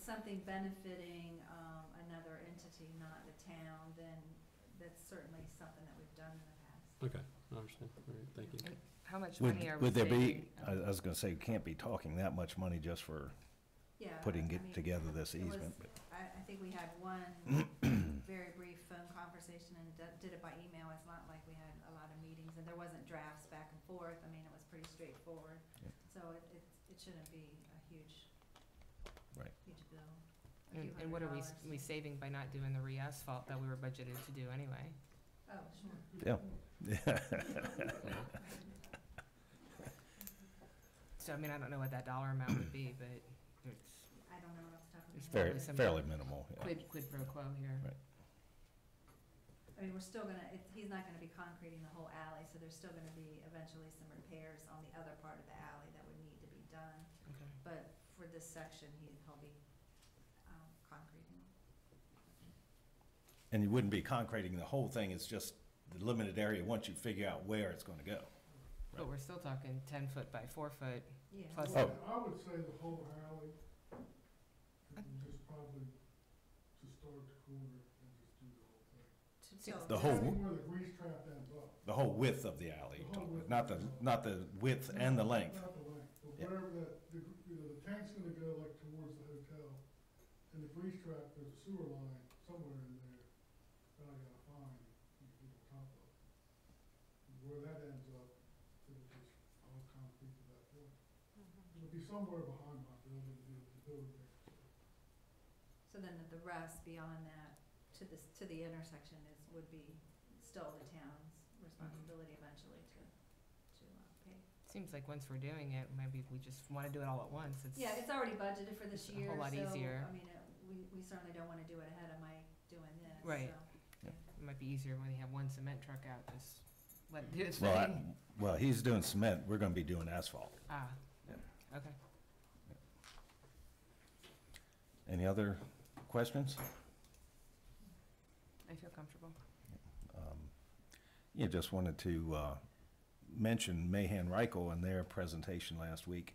something benefiting, um, another entity, not the town, then that's certainly something that we've done in the past. Okay, I understand. All right, thank you. How much money are Would, we would there be, uh, saving? I, I was gonna say, you can't be talking that much money just for Yeah. putting Uh, I it mean, together this it was- easement, but I, I think we had one very brief phone conversation and d- did it by email. It's not like we had a lot of meetings and there wasn't drafts back and forth. I mean, it was pretty straightforward. Yeah. So it, it, it shouldn't be a huge, Right. huge bill. a And few and what are hundred dollars. we, we saving by not doing the re-asphalt that we were budgeted to do anyway? Oh, sure. So, I mean, I don't know what that dollar amount would be, but it's I don't know what else to talk It's about. fairly, some- fairly minimal, yeah. quid, quid pro quo here. Right. I mean, we're still gonna, it, he's not gonna be concreting the whole alley, so there's still gonna be eventually some repairs on the other part of the alley that would need to be done. Okay. But for this section, he, he'll be, um, concreting. And you wouldn't be concreting the whole thing, it's just the limited area, once you figure out where it's gonna go. But we're still talking ten foot by four foot. Yeah. Plus- Oh. I would say the whole alley, just probably to start the corner and just do the whole thing. to- Six- so- The whole- Depending Where the grease trap ends up, The whole width of the alley, you're The whole talking about, width. not the, not the width and the length. not the length, but Yeah. wherever that, the, gr- you know, the tank's gonna go like towards the hotel. And the grease trap, there's a sewer line somewhere in there that I gotta find, you can get on top of. Where that ends up, it'll just all concrete to that point. It'll be somewhere behind my building, you know, the building there. So then the rest beyond that, to this, to the intersection is, would be still the town's responsibility eventually to, to, uh, pay. Seems like once we're doing it, maybe we just wanna do it all at once. It's, Yeah, it's already budgeted for this It's a whole year, so, I lot easier. mean, uh, we, we certainly don't wanna do it ahead of Mike doing this, so. Right. Yeah. it might be easier when you have one cement truck out, just let it do its Well, I, thing. well, he's doing cement, we're gonna be doing asphalt. Ah, Yeah. okay. Any other questions? I feel comfortable. Um, Yeah, just wanted to uh, mention Mahan Reichel in their presentation last week,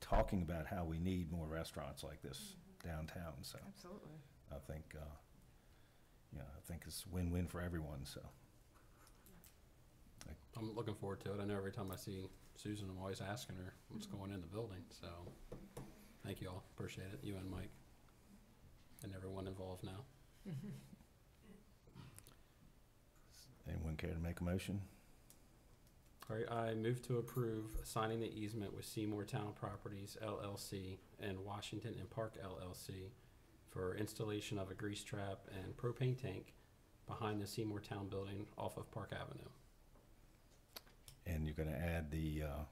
talking about how we need more restaurants like this downtown, so Absolutely. I think, uh, yeah, I think it's win-win for everyone, so. I'm looking forward to it. I know every time I see Susan, I'm always asking her what's going in the building, so thank you all. Appreciate it, you and Mike, and everyone involved now. Anyone care to make a motion? All right, I move to approve signing the easement with Seymour Town Properties LLC and Washington and Park LLC for installation of a grease trap and propane tank behind the Seymour Town building off of Park Avenue. And you're gonna add the uh,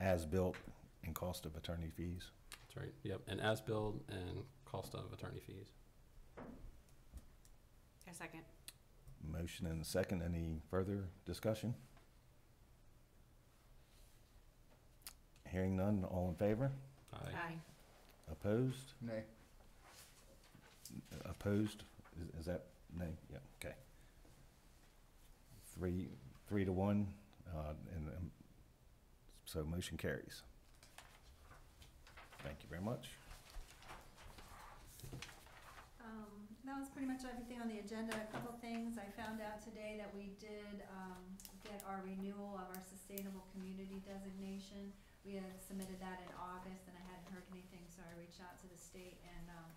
as-built and cost of attorney fees? That's right, yep, and as-built and cost of attorney fees. A second. Motion and a second, any further discussion? Hearing none, all in favor? Aye. Opposed? Nay. Opposed? Is- Is that nay? Yeah, okay. Three, three to one, uh, and um, so motion carries. Thank you very much. Um, that was pretty much everything on the agenda. A couple things, I found out today that we did, um, get our renewal of our sustainable community designation. We had submitted that in August and I hadn't heard anything, so I reached out to the state and, um,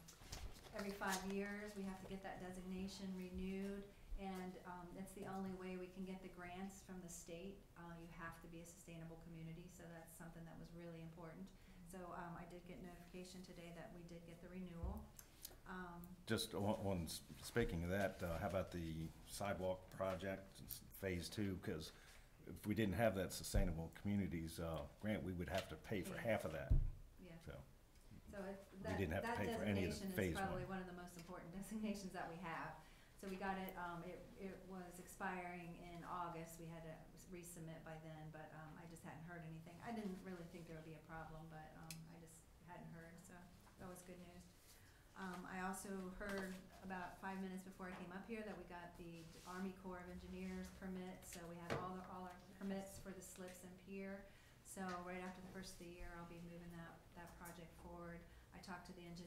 every five years, we have to get that designation renewed. And, um, that's the only way we can get the grants from the state. Uh, you have to be a sustainable community, so that's something that was really important. So, um, I did get notification today that we did get the renewal. Um, Just on, on, s- speaking of that, uh, how about the sidewalk project, s- phase two? Because if we didn't have that Sustainable Communities uh, grant, we would have to pay for half of that, Yeah, so. so it, that, didn't have to that pay for any of the designation is phase one. probably one of the most important designations that we have. So we got it, um, it, it was expiring in August, we had to resubmit by then, but, um, I just hadn't heard anything. I didn't really think there would be a problem, but, um, I just hadn't heard, so that was good news. Um, I also heard about five minutes before I came up here that we got the Army Corps of Engineers permit, so we had all the, all our permits for the slips and pier. So right after the first of the year, I'll be moving that, that project forward. I talked to the engineer